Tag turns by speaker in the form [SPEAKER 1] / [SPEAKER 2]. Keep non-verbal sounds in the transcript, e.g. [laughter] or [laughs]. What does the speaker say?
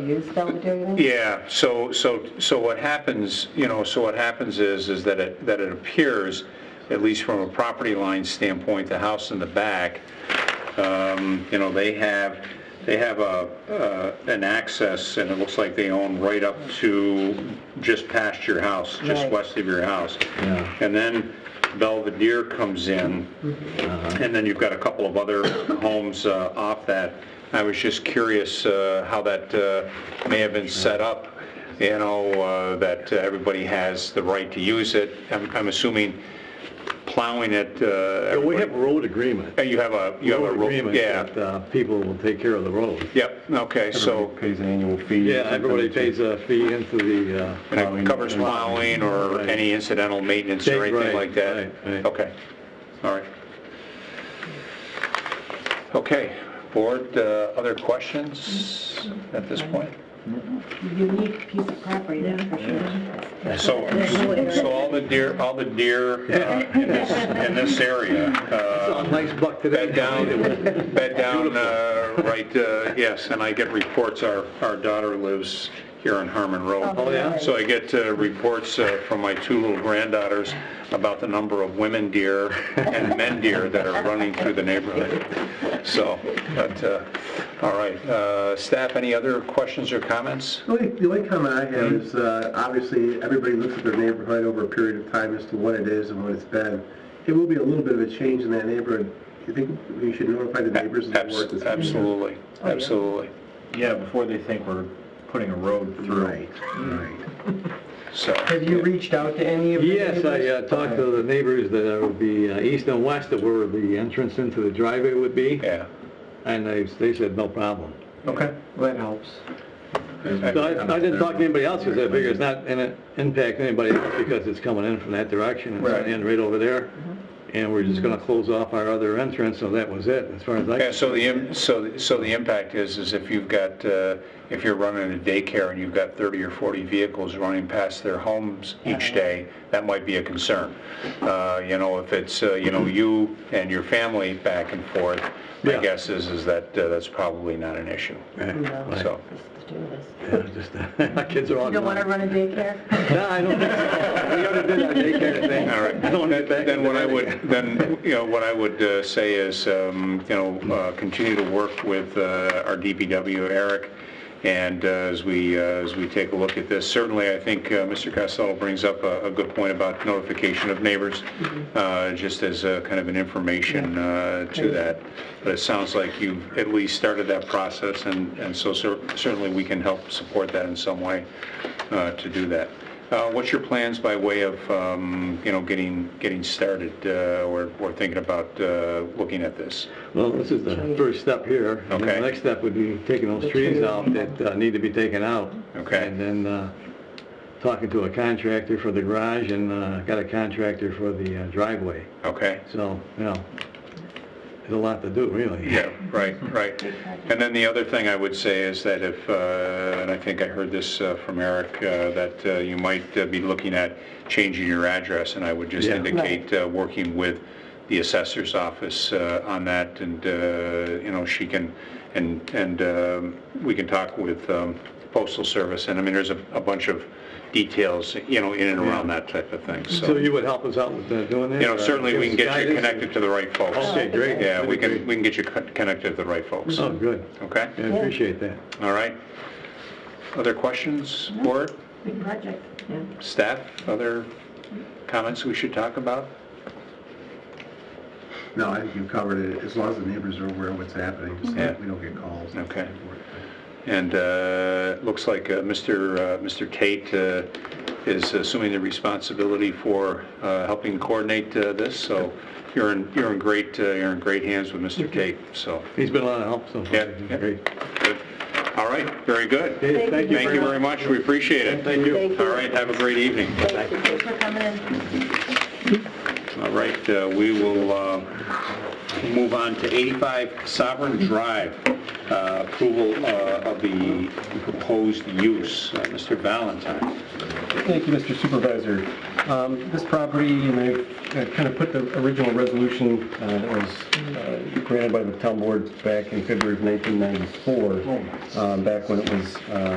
[SPEAKER 1] use Belvedere?
[SPEAKER 2] Yeah, so, so, so what happens, you know, so what happens is, is that it, that it appears, at least from a property line standpoint, the house in the back, um, you know, they have, they have a, uh, an access, and it looks like they own right up to just past your house, just
[SPEAKER 1] Right.
[SPEAKER 2] west of your house.
[SPEAKER 3] Yeah.
[SPEAKER 2] And then Belvedere comes in, and then you've got a couple of other [coughs] homes uh, off that. I was just curious uh, how that uh, may have been set up, you know, uh, that uh, everybody has the right to use it. I'm I'm assuming plowing it, uh,
[SPEAKER 3] Yeah, We
[SPEAKER 2] everybody-
[SPEAKER 3] have a road agreement.
[SPEAKER 2] Uh, you have a, you have a,
[SPEAKER 3] Road
[SPEAKER 2] ro-
[SPEAKER 3] agreement
[SPEAKER 2] yeah,
[SPEAKER 3] that uh, people will take care of the road.
[SPEAKER 2] yep, okay, so,
[SPEAKER 4] Everybody Pays an annual fee.
[SPEAKER 3] Yeah, everybody pays a fee into the, uh,
[SPEAKER 2] and it covers plowing or
[SPEAKER 3] Right.
[SPEAKER 2] any incidental maintenance or
[SPEAKER 3] Right,
[SPEAKER 2] anything like that?
[SPEAKER 3] right, right.
[SPEAKER 2] Okay, all right. Okay, board, uh, other questions at this point?
[SPEAKER 1] Unique piece of property, that's for sure.
[SPEAKER 2] So, so all the deer, all the deer uh, in this, in this area,
[SPEAKER 3] Saw a
[SPEAKER 2] uh,
[SPEAKER 3] nice buck today.
[SPEAKER 2] bed down,
[SPEAKER 3] [laughs]
[SPEAKER 2] bed down, uh, right, uh, yes, and I get reports, our, our daughter lives here on Harmon Road.
[SPEAKER 3] Oh, yeah?
[SPEAKER 2] So I get uh, reports uh, from my two little granddaughters about the number of women deer and men deer that are running through the neighborhood. So, but, uh, all right, Uh, staff, any other questions or comments?
[SPEAKER 4] The only, the only comment I have is, uh, obviously, everybody looks at their neighborhood over a period of time as to what it is and what it's been. It will be a little bit of a change in that neighborhood. Do you think we should notify the neighbors? and the board
[SPEAKER 2] Abs-
[SPEAKER 4] that's-
[SPEAKER 2] Absolutely,
[SPEAKER 3] Oh,
[SPEAKER 2] absolutely.
[SPEAKER 5] Yeah, before they think we're putting a road through.
[SPEAKER 4] Right, right.
[SPEAKER 2] So,
[SPEAKER 6] Have you reached out to any of the neighbors?
[SPEAKER 3] Yes, I uh, talked to the neighbors that would be uh, east and west of where the entrance into the driveway would be,
[SPEAKER 2] yeah.
[SPEAKER 3] and they, they said no problem.
[SPEAKER 6] Okay, well, that helps.
[SPEAKER 3] So I I didn't talk to anybody else because I figure it's not going to impact anybody else because it's coming in from that direction. It's going
[SPEAKER 6] Right.
[SPEAKER 3] to end right over there, and we're just going to close off our other entrance, so that was it, as far as I...
[SPEAKER 2] Yeah, so the, im- so, so the impact is, is if you've got, uh, if you're running a daycare and you've got 30 or 40 vehicles running past their homes each day, that might be a concern. Uh, You know, if it's, uh, you know, you and your family back and forth, my
[SPEAKER 3] Yeah.
[SPEAKER 2] guess is, is that uh, that's probably not an issue.
[SPEAKER 3] Right.
[SPEAKER 2] So,
[SPEAKER 3] Yeah, just, [laughs] my kids are on...
[SPEAKER 1] You don't want to run a daycare?
[SPEAKER 3] No, I don't
[SPEAKER 1] [laughs]
[SPEAKER 3] think so. We already did our daycare thing.
[SPEAKER 2] all right.
[SPEAKER 3] I don't want to get back
[SPEAKER 2] Then
[SPEAKER 3] into
[SPEAKER 2] what I
[SPEAKER 3] that
[SPEAKER 2] would,
[SPEAKER 3] again.
[SPEAKER 2] then, you know, what I would uh, say is, um, you know, uh, continue to work with uh, our DPW, Eric, and uh, as we, uh, as we take a look at this, certainly, I think uh, Mr. Costello brings up a a good point about notification of neighbors, uh, just as a kind of an information uh, to that. But it sounds like you've at least started that process, and and so cer- certainly we can help support that in some way uh, to do that. Uh, What's your plans by way of, um, you know, getting, getting started uh, or or thinking about uh, looking at this?
[SPEAKER 3] Well, this is the first step here. and then
[SPEAKER 2] Okay.
[SPEAKER 3] The next step would be taking those trees out that uh, need to be taken out.
[SPEAKER 2] Okay.
[SPEAKER 3] And then uh, talking to a contractor for the garage and uh, got a contractor for the uh, driveway.
[SPEAKER 2] Okay?
[SPEAKER 3] So, you know, there's a lot to do, really.
[SPEAKER 2] Yeah, right, right. And then the other thing I would say is that if, uh, and I think I heard this uh, from Eric, uh, that uh, you might uh, be looking at changing your address, and I would just
[SPEAKER 3] Yeah.
[SPEAKER 2] indicate uh, working with the assessor's office uh, on that, and, uh, you know, she can, and, and um, we can talk with um, postal service, and I mean, there's a a bunch of details, you know, in and around that type of thing,
[SPEAKER 3] So you would help us out with uh, doing that?
[SPEAKER 2] you know,
[SPEAKER 3] or
[SPEAKER 2] certainly we can
[SPEAKER 3] give us
[SPEAKER 2] get you
[SPEAKER 3] guidance?
[SPEAKER 2] connected to the right folks.
[SPEAKER 3] Okay, great.
[SPEAKER 2] Yeah, we can, we can get you con- connected to the right folks.
[SPEAKER 3] Oh, good.
[SPEAKER 2] Okay?
[SPEAKER 3] I appreciate that.
[SPEAKER 2] All right. Other questions, board,
[SPEAKER 1] Big project. Yeah.
[SPEAKER 2] staff, other comments we should talk about?
[SPEAKER 4] No, I think you covered it, as long as the neighbors are aware of what's happening, so
[SPEAKER 2] Yeah.
[SPEAKER 4] that we don't get calls.
[SPEAKER 2] Okay. And uh, looks like uh, Mr. uh, Mr. Tate uh, is assuming the responsibility for uh, helping coordinate uh, this, so you're in, you're in great, uh, you're in great hands with Mr. Tate, so.
[SPEAKER 3] He's been a lot of help so far.
[SPEAKER 2] Yeah, yeah.
[SPEAKER 3] Great.
[SPEAKER 2] good. All right, very good.
[SPEAKER 3] Okay, Thank you
[SPEAKER 2] Thank you very much, we appreciate it.
[SPEAKER 3] Thank you.
[SPEAKER 2] All right, have a great evening.
[SPEAKER 1] Thank you, thanks for coming in.
[SPEAKER 2] All right, uh, we will uh, move on to 85 Sovereign Drive, uh, approval uh, of the proposed use. Uh, Mr. Valentine.
[SPEAKER 4] Thank you, Mr. Supervisor.
[SPEAKER 6] Um, This property, and I kind of put the original resolution uh, that was uh, granted by the town board back in February of 1994, um, back when it was uh,